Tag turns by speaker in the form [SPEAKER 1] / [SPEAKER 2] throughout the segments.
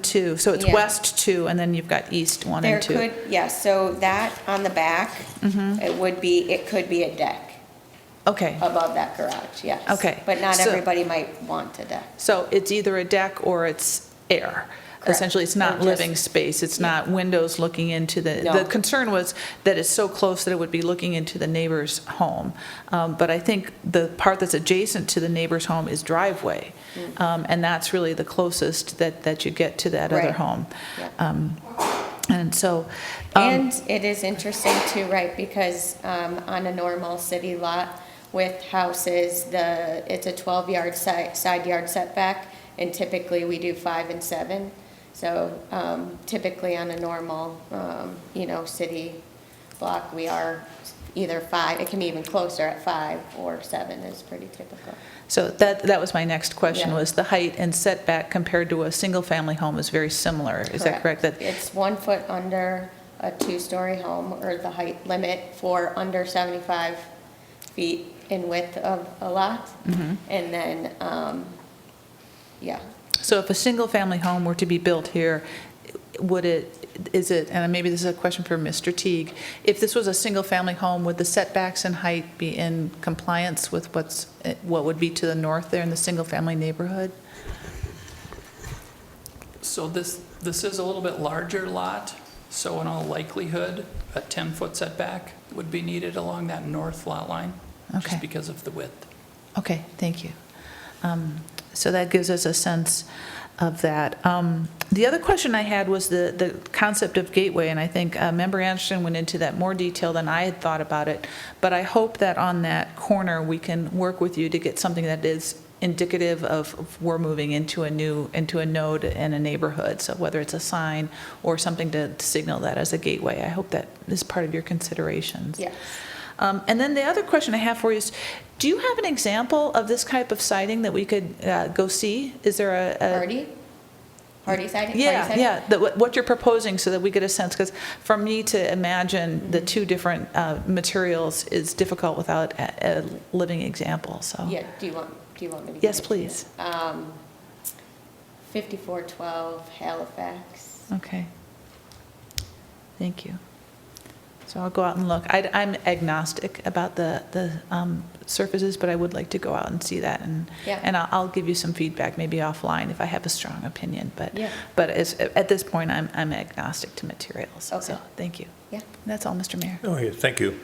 [SPEAKER 1] Two, so it's
[SPEAKER 2] Yeah.
[SPEAKER 1] west two, and then you've got east one
[SPEAKER 2] There
[SPEAKER 1] and two.
[SPEAKER 2] could, yes, so that on the back,
[SPEAKER 1] Mm-hmm.
[SPEAKER 2] it would be, it could be a deck
[SPEAKER 1] Okay,
[SPEAKER 2] above that garage, yes.
[SPEAKER 1] Okay,
[SPEAKER 2] But not
[SPEAKER 1] so-
[SPEAKER 2] everybody might want a deck.
[SPEAKER 1] so it's either a deck or it's air.
[SPEAKER 2] Correct.
[SPEAKER 1] Essentially, it's
[SPEAKER 2] Or
[SPEAKER 1] not
[SPEAKER 2] just-
[SPEAKER 1] living space, it's not windows looking into the,
[SPEAKER 2] No.
[SPEAKER 1] the concern was that it's so close that it would be looking into the neighbor's home. Um, But I think the part that's adjacent to the neighbor's home is driveway,
[SPEAKER 2] Mm.
[SPEAKER 1] Um, and that's really the closest that, that you get to that other
[SPEAKER 2] Right.
[SPEAKER 1] home.
[SPEAKER 2] Yeah.
[SPEAKER 1] Um, And so. um,
[SPEAKER 2] And it is interesting too, right, because um, on a normal city lot with houses, the, it's a 12-yard side, side yard setback, and typically we do five and seven. So um, typically on a normal, um, you know, city block, we are either five, it can be even closer at five or seven is pretty typical.
[SPEAKER 1] So that, that was my next question,
[SPEAKER 2] Yeah.
[SPEAKER 1] was the height and setback compared to a single-family home is very similar, is that correct? That
[SPEAKER 2] It's one foot under a two-story home, or the height limit for under 75 feet in width of a lot.
[SPEAKER 1] Mm-hmm.
[SPEAKER 2] And then, um, yeah,
[SPEAKER 1] So if a single-family home were to be built here, would it, is it, and maybe this is a question for Mr. Teague, if this was a single-family home, would the setbacks and height be in compliance with what's, what would be to the north there in the single-family neighborhood?
[SPEAKER 3] So this, this is a little bit larger lot, so in all likelihood, a 10-foot setback would be needed along that north lot line,
[SPEAKER 1] Okay.
[SPEAKER 3] just because of the width.
[SPEAKER 1] Okay, thank you. Um, So that gives us a sense of that. Um, The other question I had was the, the concept of gateway, and I think uh, Member Anderson went into that more detail than I had thought about it, but I hope that on that corner, we can work with you to get something that is indicative of of we're moving into a new, into a node in a neighborhood, so whether it's a sign or something to signal that as a gateway. I hope that is part of your considerations.
[SPEAKER 2] yes.
[SPEAKER 1] Um, And then the other question I have for you is, do you have an example of this type of siding that we could uh, go see? Is there a- a?
[SPEAKER 2] Hardy? Hardy siding? Hardy
[SPEAKER 1] Uh, Yeah,
[SPEAKER 2] siding?
[SPEAKER 1] yeah, that what what you're proposing so that we get a sense, because for me to imagine the two different uh, materials is difficult without a a living example, so.
[SPEAKER 2] Yeah, do you want, do you want me to?
[SPEAKER 1] Oh. Yes,
[SPEAKER 2] give it to you?
[SPEAKER 1] please.
[SPEAKER 2] Um, 5412 Halifax.
[SPEAKER 1] Okay. Thank you. So I'll go out and look. I, am agnostic about the, the um, surfaces, but I would like to go out and see that and,
[SPEAKER 2] Yeah.
[SPEAKER 1] and I'll, I'll give you some feedback, maybe offline if I have a strong opinion, but,
[SPEAKER 2] Yeah.
[SPEAKER 1] but as, at this point, I'm, I'm agnostic to materials.
[SPEAKER 2] Okay.
[SPEAKER 1] So, thank you.
[SPEAKER 2] Yeah.
[SPEAKER 1] That's all, Mr. Mayor.
[SPEAKER 4] Oh, yeah, thank you.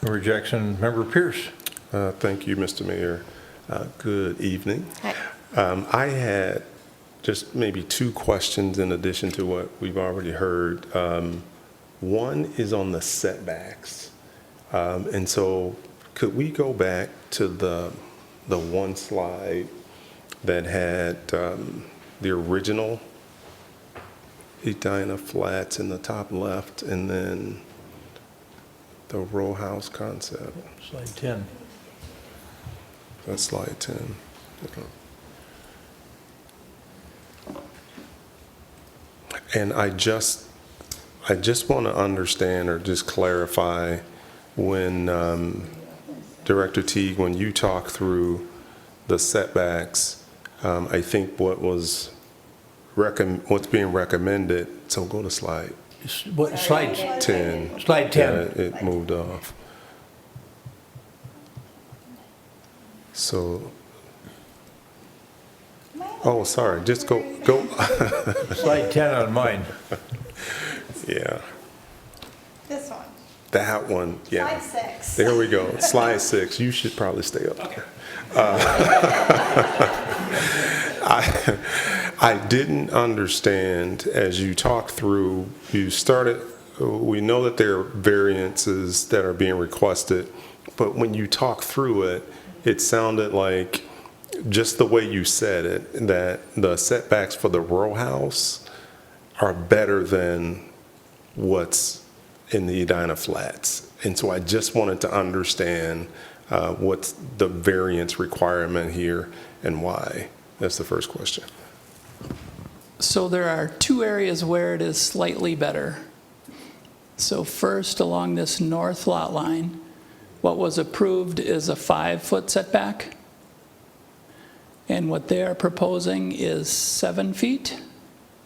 [SPEAKER 4] Member Jackson, Member Pierce.
[SPEAKER 5] Uh, Thank you, Mr. Mayor. Uh, Good evening.
[SPEAKER 2] Hi.
[SPEAKER 5] Um, I had just maybe two questions in addition to what we've already heard. Um, One is on the setbacks. Um, And so could we go back to the, the one slide that had um, the original Edina Flats in the top left and then the row house concept?
[SPEAKER 4] Slide 10.
[SPEAKER 5] That's um, slide 10. And I just, I just want to understand or just clarify when um, Director Teague, when you talk through the setbacks, um, I think what was recommend, what's being recommended, so go to slide
[SPEAKER 4] S- What, slide,
[SPEAKER 5] 10.
[SPEAKER 4] Slide 10.
[SPEAKER 5] Yeah, it- it moved off. So, oh, sorry, just go, go,
[SPEAKER 4] slide 10 on mine.
[SPEAKER 5] yeah,
[SPEAKER 6] This one,
[SPEAKER 5] that one, yeah.
[SPEAKER 6] slide six.
[SPEAKER 5] There we go, slide six, you should probably stay up. there. I, I didn't understand, as you talked through, you started, we know that there are variances that are being requested, but when you talk through it, it sounded like, just the way you said it, that the setbacks for the row house are better than what's in the Edina Flats. And so I just wanted to understand uh, what's the variance requirement here and why. That's the first question.
[SPEAKER 3] So there are two areas where it is slightly better. So first, along this north lot line, what was approved is a five-foot setback. And what they are proposing is seven feet.